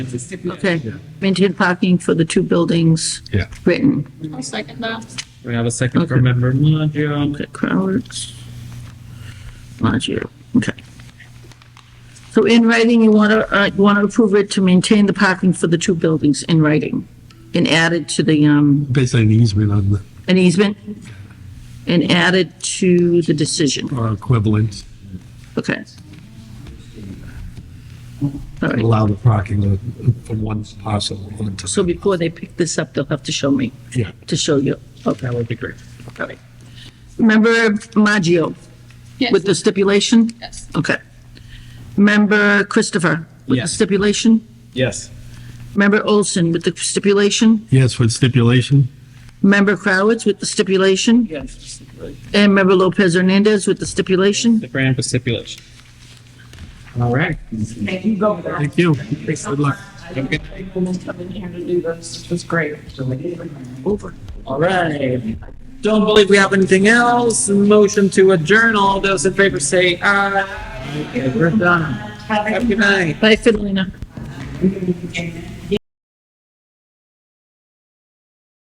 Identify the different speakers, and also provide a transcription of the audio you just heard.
Speaker 1: Okay, maintain parking for the two buildings.
Speaker 2: Yeah.
Speaker 1: Written,
Speaker 3: I'll second that.
Speaker 4: We have a second from
Speaker 1: Okay.
Speaker 4: member Maggio.
Speaker 1: okay, Crowers. Maggio, okay. So in writing, you want to, uh, you want to approve it to maintain the parking for the two buildings in writing and add it to the, um,
Speaker 2: Basically an easement on the,
Speaker 1: an easement and add it to the decision,
Speaker 2: or uh, equivalent,
Speaker 1: okay? All right,
Speaker 2: allow the parking of- from one parcel onto.
Speaker 1: so before they pick this up, they'll have to show me,
Speaker 2: Yeah.
Speaker 1: to show you, okay?
Speaker 4: That would be great.
Speaker 1: All right. Member Maggio?
Speaker 3: Yes.
Speaker 1: With the stipulation?
Speaker 3: Yes.
Speaker 1: Okay. Member Christopher? With the
Speaker 4: Yes.
Speaker 1: stipulation?
Speaker 4: Yes.
Speaker 1: Member Olson with the stipulation?
Speaker 2: Yes, with stipulation?
Speaker 1: Member Crowitz with the stipulation?
Speaker 4: Yes.
Speaker 1: And Member Lopez Hernandez with the stipulation?
Speaker 4: The grant for stipulation. All right.
Speaker 5: Thank you go there.
Speaker 2: Thank you. Good luck.
Speaker 5: Women coming here to do this, it was great.
Speaker 1: Over.
Speaker 4: All right. Don't believe we have anything else. Motion to adjourn. All those in favor say aye. Okay, we're done. Have a good night.
Speaker 1: Bye, Fidelina.
Speaker 5: Amen.